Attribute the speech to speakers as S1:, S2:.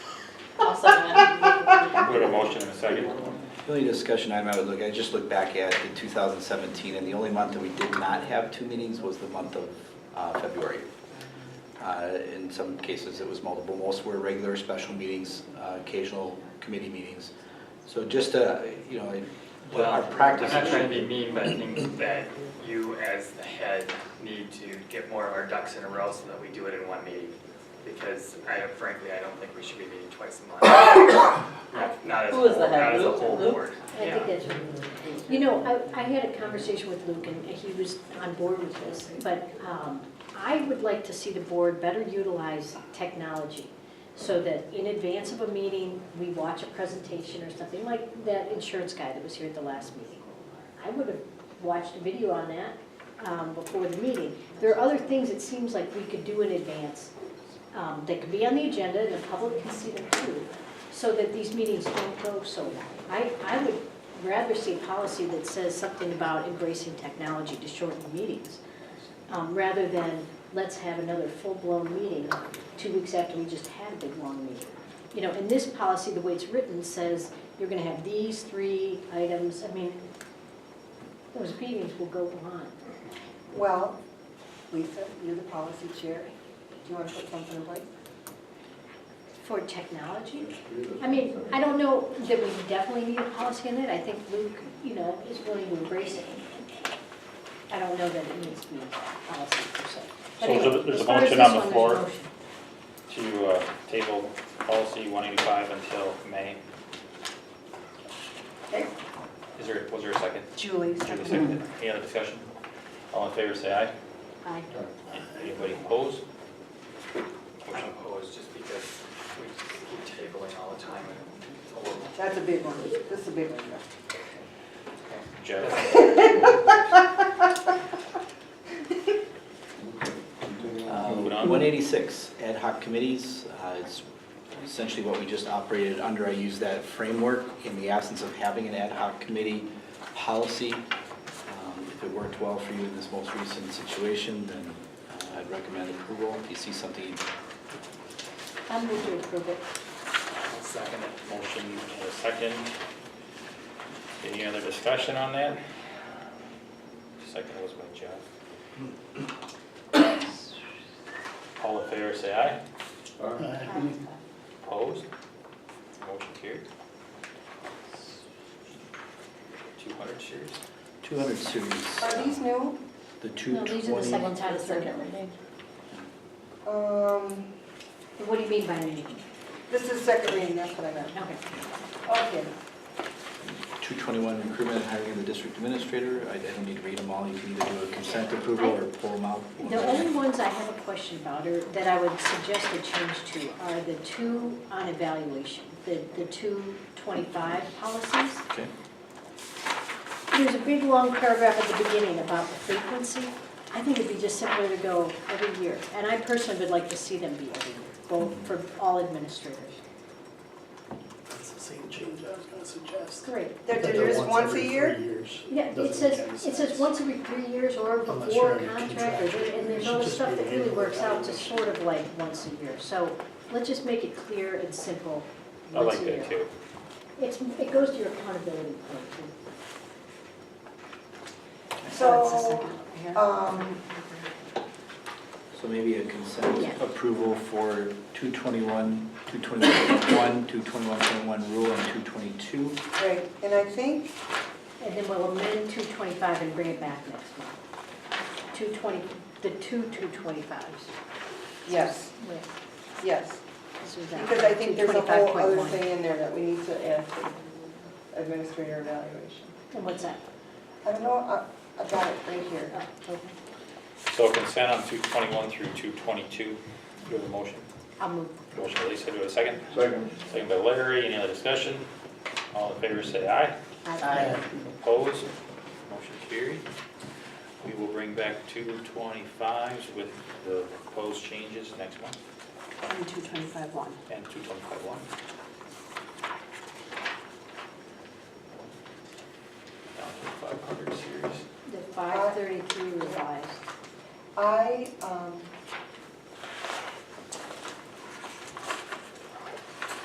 S1: Second.
S2: The only discussion item I would look, I just look back at the 2017, and the only month that we did not have two meetings was the month of uh, February. Uh, In some cases, it was multiple, most were regular special meetings, uh, occasional committee meetings. So just, uh, you know, what our practice.
S3: I'm not trying to be mean, but I think that you as the head need to get more of our ducks in a row so that we do it in one meeting. Because I frankly, I don't think we should be meeting twice a month. Not- Not as, a
S4: Who is the
S3: whole-
S4: head?
S3: not as a
S4: Luke?
S3: whole
S4: Luke?
S3: board.
S5: I
S3: Yeah.
S5: think that's what You know, I, I had a conversation with Luke and he was on board with this, but um, I would like to see the board better utilize technology so that in advance of a meeting, we watch a presentation or something like that insurance guy that was here at the last meeting. I would have watched a video on that um, before the meeting. There are other things it seems like we could do in advance um, that could be on the agenda and the public can see them too, so that these meetings don't go so long. I, I would rather see a policy that says something about embracing technology to shorten meetings, um, rather than let's have another full-blown meeting two weeks after we just had a big, long meeting. You know, and this policy, the way it's written, says you're gonna have these three items, I mean, those meetings will go on.
S6: Well, Lisa, you're the policy chair. Do you want to put something in place?
S5: For technology? I mean, I don't know that we definitely need a policy on it. I think Luke, you know, is willing to embrace it. I don't know that it needs to be a policy per se. But
S1: So there's a-
S5: anyway,
S1: there's a
S5: as far as
S1: motion
S5: this
S1: on the
S5: one, there's a
S1: floor.
S5: motion.
S1: To uh, table policy 185 until May.
S6: Okay.
S1: Is there, was there a second?
S6: Julie,
S1: Julie
S6: second.
S1: seconded. Any other discussion? All in favor, say aye.
S5: Aye.
S1: Anybody opposed?
S3: I'm opposed just because we just keep tabling all the time and it's a little.
S6: That's a big one. This is a big one.
S1: Joe?
S2: Uh,
S1: Moving on.
S2: 186, ad hoc committees, uh, it's essentially what we just operated under. I use that framework in the absence of having an ad hoc committee policy. Um, If it worked well for you in this most recent situation, then uh, I'd recommend approval. If you see something,
S5: I'm going to approve it.
S3: Second.
S1: Motion and a second. Any other discussion on that? Second was by Jeff. All in favor, say aye.
S5: Aye.
S1: Opposed? Motion carried. 200 shares.
S2: 200 series, um,
S6: Are these new?
S2: the 220.
S5: No, these are the second time, third.
S6: Um,
S5: What do you mean by reading?
S6: This is second reading, that's what I meant.
S5: Okay.
S6: Okay.
S2: 221 recruitment and hiring of the district administrator. I I don't need to read them all. You can either do a consent approval or pull them out.
S5: The only ones I have a question about, or that I would suggest a change to, are the two on evaluation, the, the two twenty-five policies.
S2: Okay.
S5: There's a big, long paragraph at the beginning about the frequency. I think it'd be just simpler to go every year, and I personally would like to see them be every year, both for all administrators.
S7: That's the same change I was gonna suggest.
S5: Great.
S6: They're
S7: That
S6: they're just once
S7: every
S6: a
S7: three
S6: year?
S7: years.
S5: Yeah, it
S7: Doesn't
S5: says,
S7: make any
S5: it says
S7: sense.
S5: once every three years or
S7: I'm not
S5: before
S7: sure I can
S5: contract, or
S7: contract.
S5: there- and there's all
S7: Should
S5: the
S7: just
S5: stuff
S7: be
S5: that really
S7: annual
S5: works out to
S7: evaluation.
S5: sort of like once a year. So let's just make it clear and simple.
S1: I
S5: once
S1: like
S5: a
S1: that
S5: year.
S1: too.
S5: It's, it goes to your accountability point. too. That's the
S6: So,
S5: second one here.
S6: um,
S2: So maybe a consent
S5: Yeah.
S2: approval for 221, 221.1, 221.1 rule, and 222.
S6: great. And I think,
S5: And then we'll amend two twenty-five and bring it back next month. Two twenty, the two two twenty-fives.
S6: yes, yes.
S5: This was out.
S6: Because I think there's a whole other
S5: 225.1.
S6: thing in there that we need to add to administrator evaluation.
S5: And what's that?
S6: I don't know, I- I've got it right here.
S5: Oh, okay.
S1: So consent on 221 through 222. Do the motion.
S5: I'll move.
S1: Motion by Lisa, do I have a second?
S7: Second.
S1: Second by Larry. Any other discussion? All in favor, say aye.
S5: Aye.
S1: Opposed? Motion carried. We will bring back 225s with the proposed changes next month
S4: And two twenty-five one.
S1: and 225.1. Down to 500 series.
S5: The five thirty-three revised.
S6: I, um,